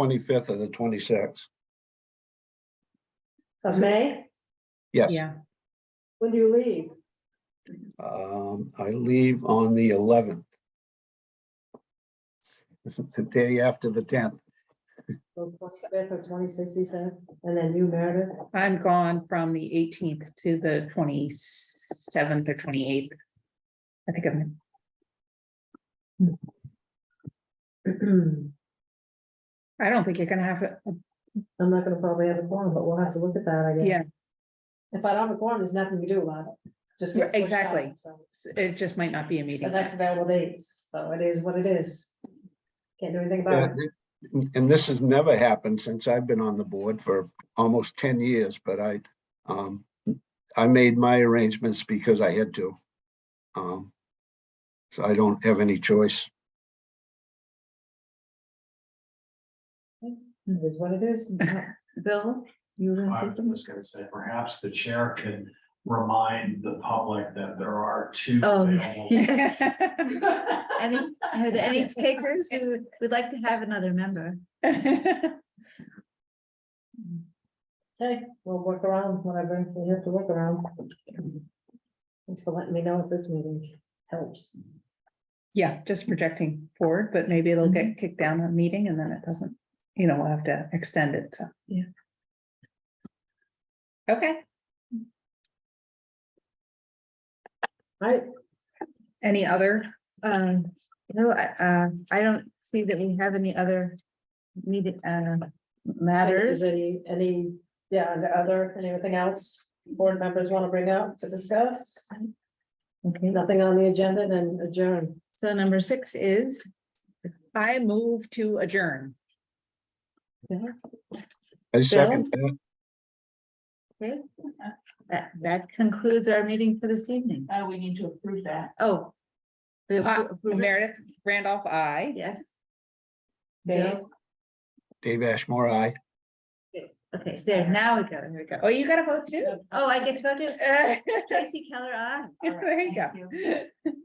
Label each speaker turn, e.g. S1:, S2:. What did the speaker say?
S1: twenty-fifth or the twenty-sixth.
S2: Of May?
S1: Yes,
S3: Yeah,
S2: When do you leave?
S1: um, I leave on the eleventh. The day after the tenth.
S2: The Twenty-fifth or twenty-sixth, he said, and then you, Meredith?
S3: I'm gone from the eighteenth to the twenty-seventh or twenty-eighth. I think I'm,
S2: I'm
S3: I don't think you're gonna have, a-
S2: not gonna probably have a forum, but we'll have to look at that, I guess.
S3: yeah,
S2: If I don't have a forum, there's nothing we can do about it. Just gets
S3: Right,
S2: pushed out,
S3: exactly.
S2: so.
S3: it just might not be a
S2: The
S3: meeting.
S2: next available dates, so it is what it is. Can't do anything about it.
S1: And this has never happened since I've been on the board for almost ten years, but I, um, I made my arrangements because I had to. Um, So I don't have any choice.
S2: It is what it is. Bill, you were
S4: I was just gonna say, perhaps the chair can remind the public that there are two.
S5: Oh,
S4: available-
S5: Any, are there any takers who would like to have another member?
S2: Okay, we'll work around whatever we have to work around. Thanks for letting me know if this meeting helps.
S3: Yeah, just projecting forward, but maybe it'll
S5: Mm-hmm.
S3: get kicked down a meeting and then it doesn't, you know, we'll have to extend it, so.
S5: Yeah.
S3: Okay,
S2: Right,
S3: any other,
S5: Um, no, I, uh, I don't see that we have any other meeting, uh, matters.
S2: Is Any, any, yeah, and other, anything else board members want to bring up to discuss?
S5: Okay,
S2: Nothing on the agenda, then adjourn.
S5: so number six is,
S3: I move to adjourn.
S1: I second that.
S5: okay, that, that concludes our meeting for this evening.
S6: Uh, we need to approve that.
S5: Oh. we
S3: Uh,
S5: appro- approve it?
S3: Meredith Randolph, I.
S5: Yes,
S2: Bill?
S1: Dave Ashmore, aye.
S5: okay, there, now we go, there we
S3: Oh,
S5: go.
S3: you got a vote too?
S6: Uh.
S5: Oh, I get to go to
S3: There
S5: Tracy Keller, aye.
S3: you
S6: Thank
S3: go.